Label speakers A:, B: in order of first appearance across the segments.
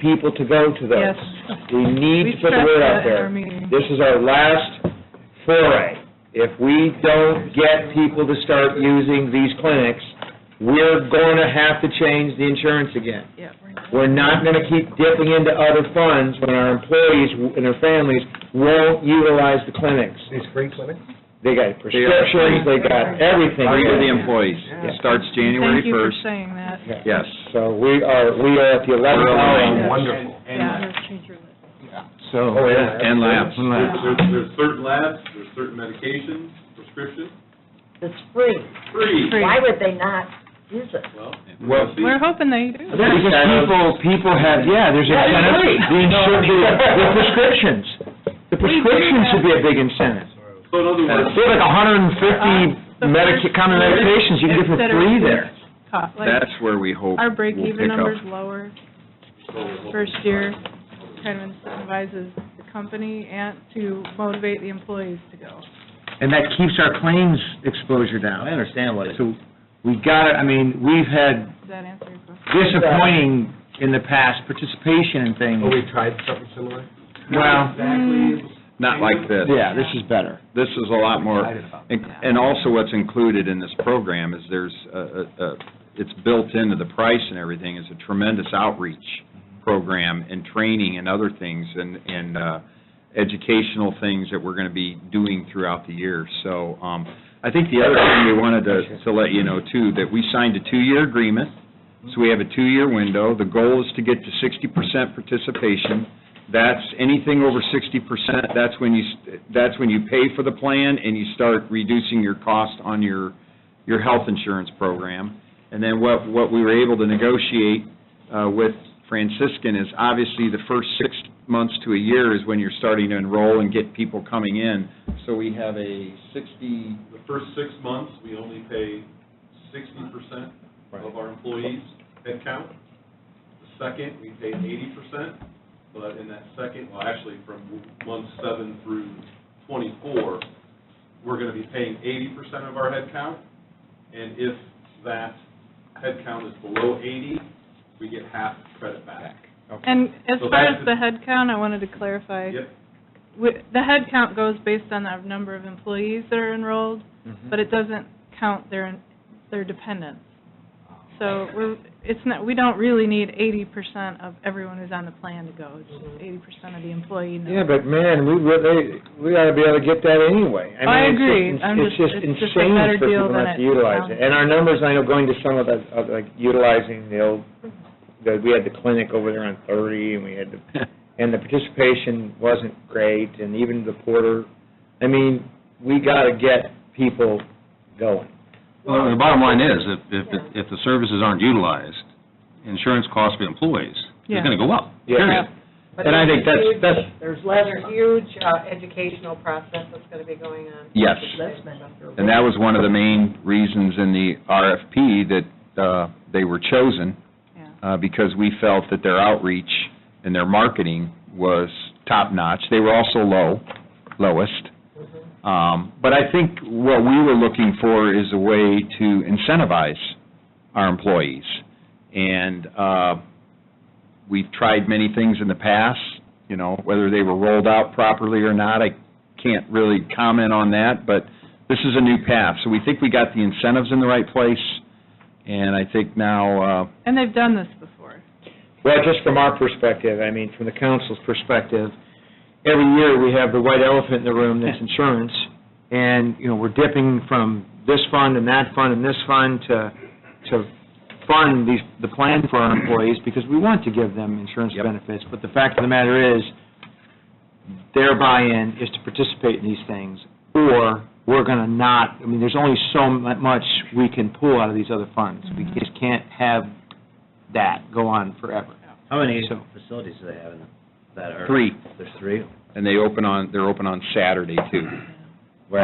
A: people to go to those.
B: Yes.
A: We need to
B: We
A: put the
B: stressed
A: word out
B: that in
A: there.
B: our meeting.
A: This is our last foray. If we don't get people to start using these clinics, we're going to have to change the insurance again.
B: Yeah.
A: We're not going to keep dipping into other funds when our employees and their families won't utilize the clinics.
C: These free clinics?
A: They got prescriptions, they got everything.
D: Free to the employees. It starts January
B: Thank you for
D: 1st.
B: saying that.
A: Yeah.
D: Yes.
A: So we are, we are at the eleventh
D: We're
A: hour.
D: aligned.
C: Wonderful.
B: Yeah.
D: So.
A: Oh, yeah.
D: And labs.
E: There's, there's certain labs, there's certain medications, prescriptions,
F: It's free.
E: free.
B: Free.
F: Why would they not use it?
E: Well,
A: Well,
E: see,
B: We're hoping they do.
A: Because people, people have, yeah, there's incentive, the insur- the- the prescriptions. The prescriptions should be a big incentive.
E: so in other words,
A: They have like hundred and
B: uh,
A: fifty medic, common medications you can get for free there.
B: Cost, like,
D: That's where we hope
B: Our
D: we'll
B: break-even
D: pick
B: number's
D: up.
B: lower
E: so-
B: first year, kind of incentivizes the company and to motivate the employees to go.
G: And that keeps our claims exposure down.
A: understand what
G: So we got it, I mean, we've had
B: Does that answer your question?
G: disappointing in the past participation in things.
C: Oh, we tried something similar?
G: Well,
D: Not like this.
G: yeah, this is better.
D: This is a lot more,
C: Excited about
D: and and also what's included in this program is there's, a- a- a- it's built into the price and everything, is a tremendous outreach program and training and other things and, and uh, educational things that we're going to be doing throughout the year. So um, I think the other thing we wanted to, to let you know too, that we signed a two-year agreement, so we have a two-year window. The goal is to get to sixty percent participation. That's anything over sixty percent, that's when you, s- that's when you pay for the plan and you start reducing your cost on your, your health insurance program. And then what, what we were able to negotiate uh, with Franciscan is obviously the first six months to a year is when you're starting to enroll and get people coming in. So we have a sixty,
E: the first six months, we only pay sixty percent of our employees' headcount. The second, we pay eighty percent, but in that second, well, actually, from month seven through twenty-four, we're gonna be paying eighty percent of our headcount, and if that headcount is below eighty, we get half credit back.
B: And as
E: So
B: far as
E: that's the-
B: the head count, I wanted to clarify.
E: Yep.
B: Wi- The head count goes based on the number of employees that are enrolled, but it doesn't count their, their dependents. So we're, it's not, we don't really need eighty percent of everyone who's on the plan to go, it's just eighty percent of the employee knows.
A: Yeah, but man, we really, we ought to be able to get that anyway.
B: I
A: mean, it's
B: agree.
A: just-
B: I'm
A: It's
B: just-
A: just
B: it's just a
A: insane
B: better
A: for
B: deal
A: people
B: than
A: not to
B: it
A: utilize it.
B: sounds.
A: And our numbers, I know, going to some of the, of like utilizing the old, the, we had the clinic over there on thirty and we had the and the participation wasn't great, and even the porter, I mean, we got to get people going.
H: Well, the bottom line is, if, if, if the services aren't utilized, insurance costs for employees
B: Yeah.
H: is going to go up,
A: Yeah.
H: period.
F: But
A: And I think
F: there's a
A: that's-
F: huge-
A: that's-
F: There's less, a huge uh, educational process that's going to be going on.
D: Yes.
F: And
D: and that was one of the main reasons in the RFP that uh, they were chosen,
B: Yeah.
D: uh, because we felt that their outreach and their marketing was top-notch. They were also low, lowest. Um, But I think what we were looking for is a way to incentivize our employees. And uh, we've tried many things in the past, you know, whether they were rolled out properly or not, I can't really comment on that, but this is a new path. So we think we got the incentives in the right place, and I think now, uh,
B: And they've done this before.
A: Well, just from our perspective, I mean, from the council's perspective, every year we have the white elephant in the room, that's insurance, and, you know, we're dipping from this fund and that fund and this fund to, to fund these, the plan for our employees, because we want to give them insurance
D: Yep.
A: benefits, but the fact of the matter is, their buy-in is to participate in these things, or we're going to not, I mean, there's only so mu- much we can pull out of these other funds. We just can't have that go on forever.
G: How many
A: So-
G: facilities do they have in that are?
D: three,
G: There's three?
D: and they open on, they're open on Saturday, too. Uh,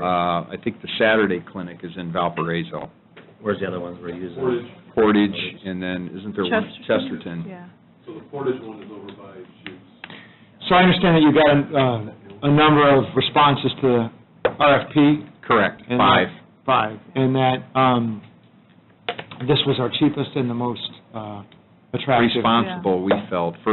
D: uh, I think the Saturday clinic is in Valparaiso,
G: where's the other ones we're using?
E: Portage,
D: Portage, and then, isn't there one?
B: Chesterton. Yeah.
E: so the Portage one is over by Jukes.
A: So I understand that you got uh, a number of responses to the RFP,
D: Correct,
A: And-
D: five.
A: five, and that um, this was our cheapest and the most uh, Attractive.
D: responsible, we felt, for